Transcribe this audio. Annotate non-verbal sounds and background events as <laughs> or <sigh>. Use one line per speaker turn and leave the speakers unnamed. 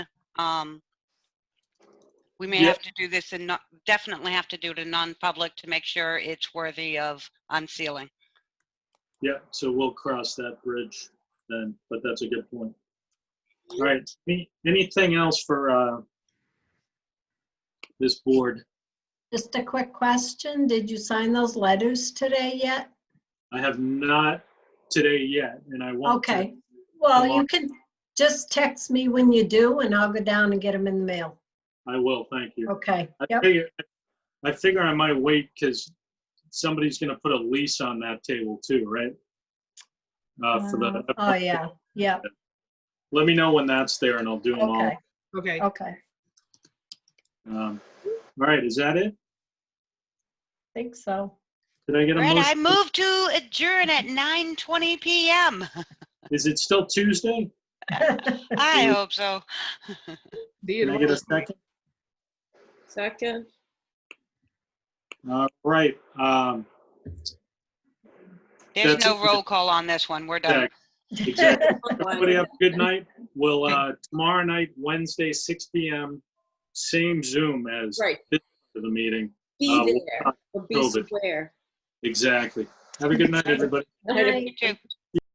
Um, We may
Yeah.
have to do this and not, definitely have to do it in non-public to make sure it's worthy of unsealing.
Yeah, so we'll cross that bridge then, but that's a good point. All right, any- anything else for uh, this board?
Just a quick question. Did you sign those letters today yet?
I have not today yet, and I want to.
Okay. Well,
Tomorrow.
you can just text me when you do and I'll go down and get them in the mail.
I will, thank you.
Okay.
I
Yep.
figure, I figure I might wait because somebody's gonna put a lease on that table too, right? Uh, for the,
Oh, yeah. Yeah.
let me know when that's there and I'll do them all.
Okay.
Okay, I
Okay.
Um, All right, is that it?
Think so.
Did I get a
All right, I
motion?
move to adjourn at 9:20 PM.
Is it still Tuesday? <laughs>
I hope so.
Can I get a second?
Second.
All right, um,
There's
That's
no
it.
roll call on this one. We're
yeah,
done.
<laughs>
exactly. Everybody have a good night. We'll, uh, tomorrow night, Wednesday, six PM, same Zoom as
Right,
the meeting. Uh,
be
we'll
there,
talk
or be
COVID.
square.
Exactly. Have a good night, everybody.
Bye.
You too.